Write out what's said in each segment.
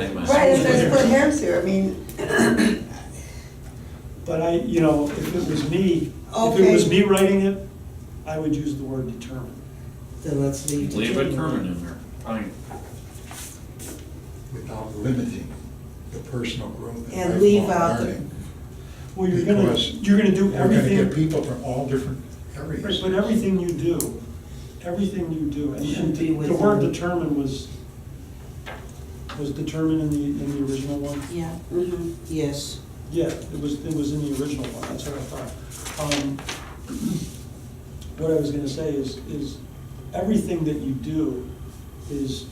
Right, it's it's been just put hairs years. here, I mean, But I, you know, if it was me, if it Okay. was me writing it, I would use the word determined. Then let's leave. Leave it permanent in there. I mean, without limiting the personal growth and And leave lifelong out the- learning. Well, you're gonna, Because you're gonna do We're gonna get everything, people from all different areas. but everything you do, everything you do, and- Should be and the word within- determined was, was determined in the, in the original one? Yeah, Mm-hmm. mhm. yes. Yeah, it was, it was in the original one, that's what I thought. Um, What I was gonna say is, is everything that you do is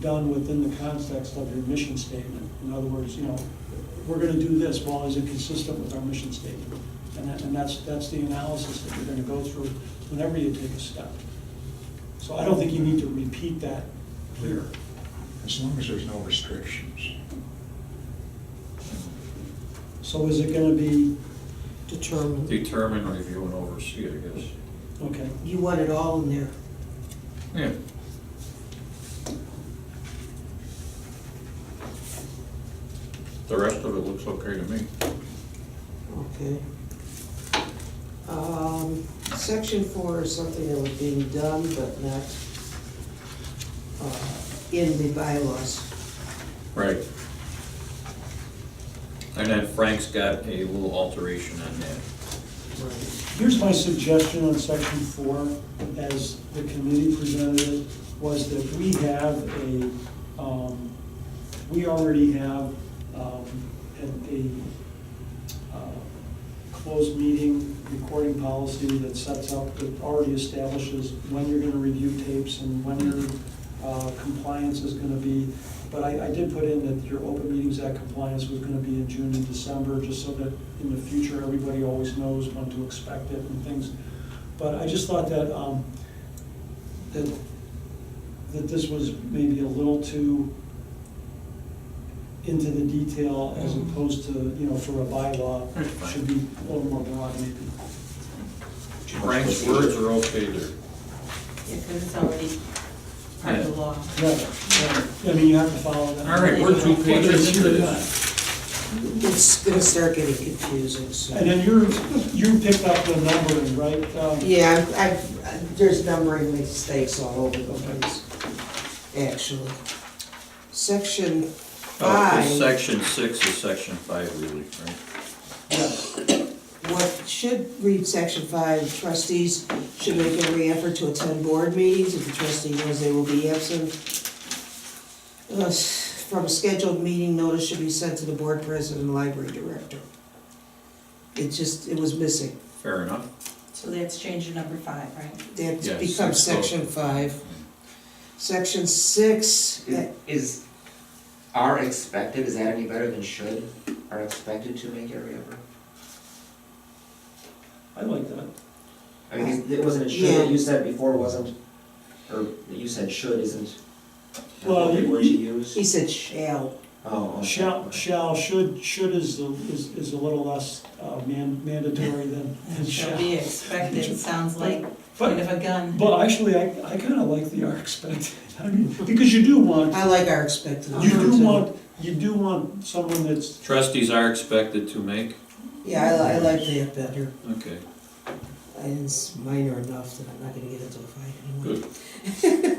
done within the context of your mission statement. In other words, you know, we're gonna do this, well, is it consistent with our mission statement? And that, and that's, that's the analysis that you're gonna go through whenever you take a step. So I don't think you need to repeat that here. As long as there's no restrictions. So is it gonna be, Determined. determine, review, and oversee, I guess. okay, You want it all in there. Yeah. The rest of it looks okay to me. Okay. Um, section four is something that was being done, but not, uh, in the bylaws. Right. And then Frank's got a little alteration on that. Right. Here's my suggestion on section four, as the committee presented it, was that we have a, um, we already have, um, a, a, uh, closed meeting recording policy that sets up, that already establishes when you're gonna review tapes and when your, uh, compliance is gonna be. But I, I did put in that your open meetings act compliance was gonna be in June and December, just so that in the future, everybody always knows when to expect it and things. But I just thought that, um, that, that this was maybe a little too into the detail as opposed to, you know, for a bylaw, That's Mm-hmm. fine. should be a little more broad maybe. Frank's words are okay there. Yeah, because it's already part of the law. Right, right. I mean, you have to follow that. All right, we're two Whether it's pages here into or this. not. It's gonna start getting confusing, so. And then you're, you picked up the numbering, right? Um, Yeah, I've- I've, there's numbering mistakes all over the place, actually. Section Oh, it's five, section six is section five really, right? what should read section five, trustees should make every effort to attend board meetings if the trustee knows they will be absent. Uh, s- From a scheduled meeting, notice should be sent to the board president and library director. It just, it was missing. Fair enough. So that's change to number five, right? Yes, That becomes so- section five. Section six, Is- Is, are expected, is that any better than should? Are expected to make every effort? I like that. I mean, it wasn't it should Yeah. that you said before wasn't, or that you said should isn't? Well, What you- word you use? he said shall. Oh, okay. Shall, shall, should, should is, the- is is a little less uh, man- mandatory than than It shall. shall be expected, sounds like point But, of a gun. but actually, I, I kind of like the are expected, I mean, because you do want, I like our expected. you number, do too. want, you do want someone that's, Trustees are expected to make, Yeah, I, I like that better, okay, and it's minor enough that I'm not gonna get into a fight anyway. good.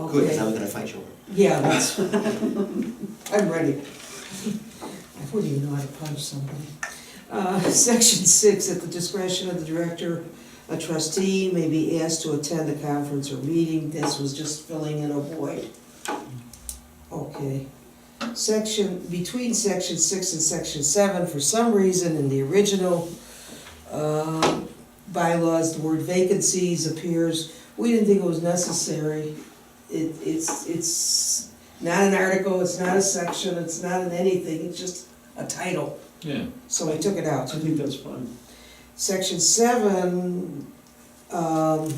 Good, because I Okay, was gonna fight you over. it. yeah, that's, I'm ready. I wouldn't even know how to punch somebody. Uh, section six, at the discretion of the director, a trustee may be asked to attend a conference or meeting, this was just filling in a void. Okay. Section, between section six and section seven, for some reason in the original, uh, bylaws, the word vacancies appears, we didn't think it was necessary. It, it's, it's not an article, it's not a section, it's not an anything, it's just a title. Yeah, So we took it I out. think that's fine. Section seven, um,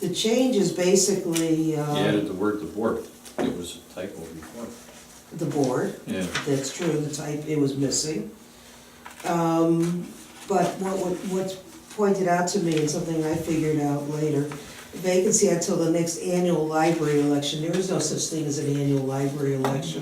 the change is basically, he uh, added the word the board. It was a typo before. the board, Yeah, that's true, the type, it was missing. Um, but what, what, what's pointed out to me and something I figured out later, vacancy until the next annual library election, there is no such thing as an annual library election.